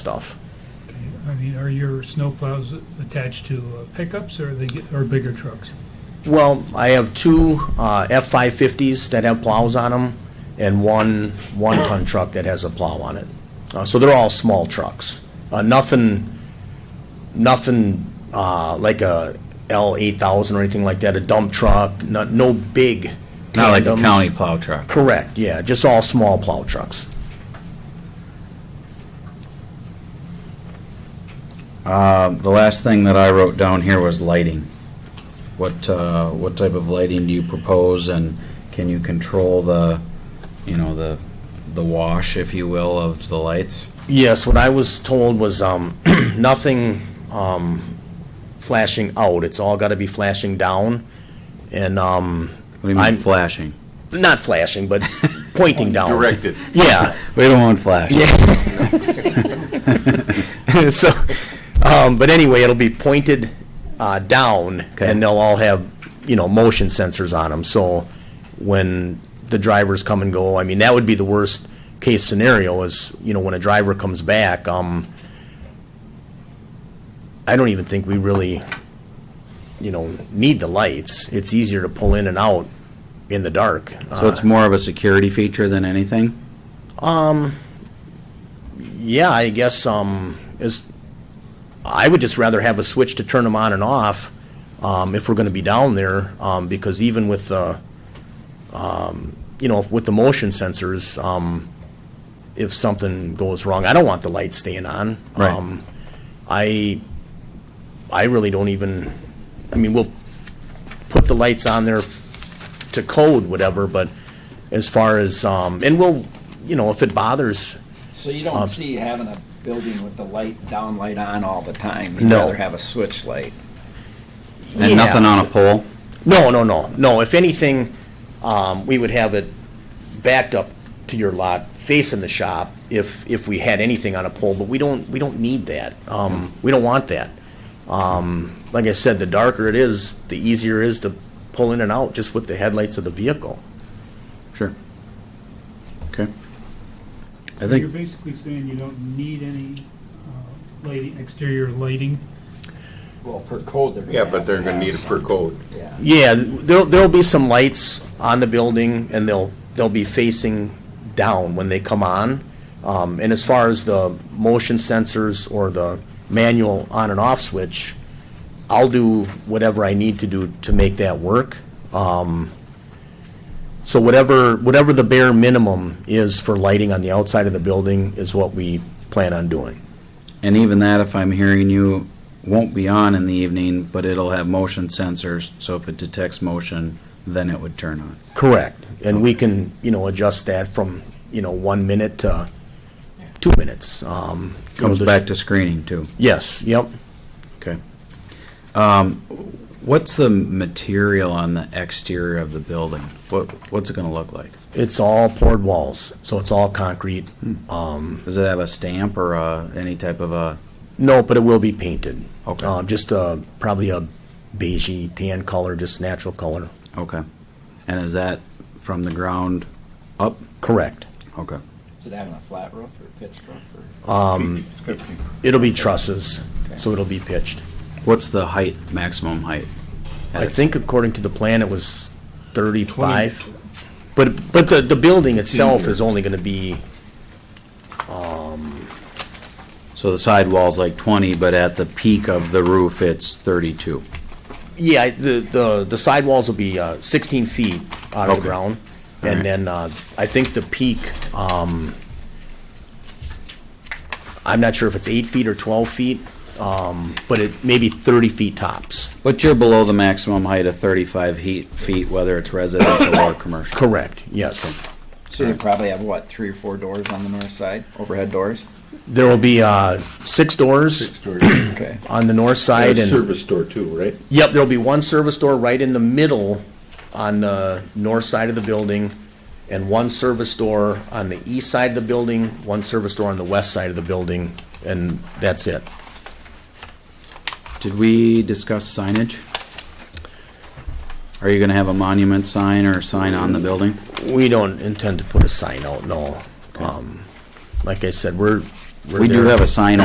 stuff. I mean, are your snowplows attached to uh, pickups or they get, or bigger trucks? Well, I have two uh, F-550s that have plows on them, and one one-ton truck that has a plow on it. Uh, So they're all small trucks. Uh, Nothing, nothing uh, like a L-8000 or anything like that, a dump truck, no- no big Not like a tandems. county plow truck. Correct, yeah, just all small plow trucks. Um, The last thing that I wrote down here was lighting. What, uh, what type of lighting do you propose, and can you control the, you know, the, the wash, if you will, of the lights? Yes, what I was told was um, nothing um, flashing out. It's all got to be flashing down, and um, What do you mean I'm- flashing? not flashing, but pointing down. Directed. Yeah. We don't want flash. so, um, but anyway, it'll be pointed uh, down, Okay. and they'll all have you know motion sensors on them. So when the drivers come and go, I mean that would be the worst case scenario is you know when a driver comes back. Um, I don't even think we really you know need the lights. It's easier to pull in and out in the dark. So it's more of a security feature than anything? Yeah, I guess, um, is, I would just rather have a switch to turn them on and off, um, if we're gonna be down there, um, because even with, uh, um, you know, with the motion sensors, um, if something goes wrong, I don't want the lights staying on. Right. Um, I, I really don't even, I mean, we'll put the lights on there f- to code whatever, but as far as, um, and we'll, you know, if it bothers, So you don't see having a building with the light, down light on all the time? You'd No. rather have a switch light? And nothing on a pole? No, no, no, no. If anything, um, we would have it backed up to your lot, facing the shop, if, if we had anything on a pole, but we don't, we don't need that. Um, we don't want that. Um, like I said, the darker it is, the easier it is to pull in and out just with the headlights of the vehicle. Sure. Okay. I You're think, basically saying you don't need any uh, lighting, exterior lighting. Well, per code, they're gonna Yeah, but have to they're gonna have need it per some- code. Yeah. Yeah, there'll, there'll be some lights on the building, and they'll, they'll be facing down when they come on. Um, and as far as the motion sensors or the manual on and off switch, I'll do whatever I need to do to make that work. Um, so whatever, whatever the bare minimum is for lighting on the outside of the building is what we plan on doing. and even that, if I'm hearing you, won't be on in the evening, but it'll have motion sensors, so if it detects motion, then it would turn on. Correct. And we can, you know, adjust that from, you know, one minute to two minutes. Um, you know, Comes there's- back to screening too. Yes, yep. Okay. Um, what's the material on the exterior of the building? What, what's it gonna look like? It's all poured walls, so it's all concrete. Does it have a stamp or, uh, any type of a, No, but it will be painted. Okay. Uh, Just uh, probably a beigey tan color, just natural color. okay. And is that from the ground up? Correct. Okay. Is it having a flat roof or pitched roof or? It'll be trusses, so it'll be pitched. What's the height, maximum height? I think according to the plan, it was 35. But, but the, the building itself is only going to be, So the sidewall's like twenty, but at the peak of the roof, it's thirty-two. yeah, the, the the sidewalls will be uh, 16 feet out of the Okay. ground. Alright. And then uh, I think the peak, um, I'm not sure if it's eight feet or 12 feet, um, but it may be 30 feet tops. But you're below the maximum height of thirty-five heat, feet, whether it's residential or commercial. Correct, yes. So you probably have, what, three or four doors on the north side, overhead doors? There will be uh, six doors Okay. on the north side and. Service door too, right? Yep, there'll be one service door right in the middle on the north side of the building, and one service door on the east side of the building, one service door on the west side of the building, and that's it. Did we discuss signage? Are you gonna have a monument sign or a sign on the building? We don't intend to put a sign out, no. Um, Like I said, we're, we're We do there. have a sign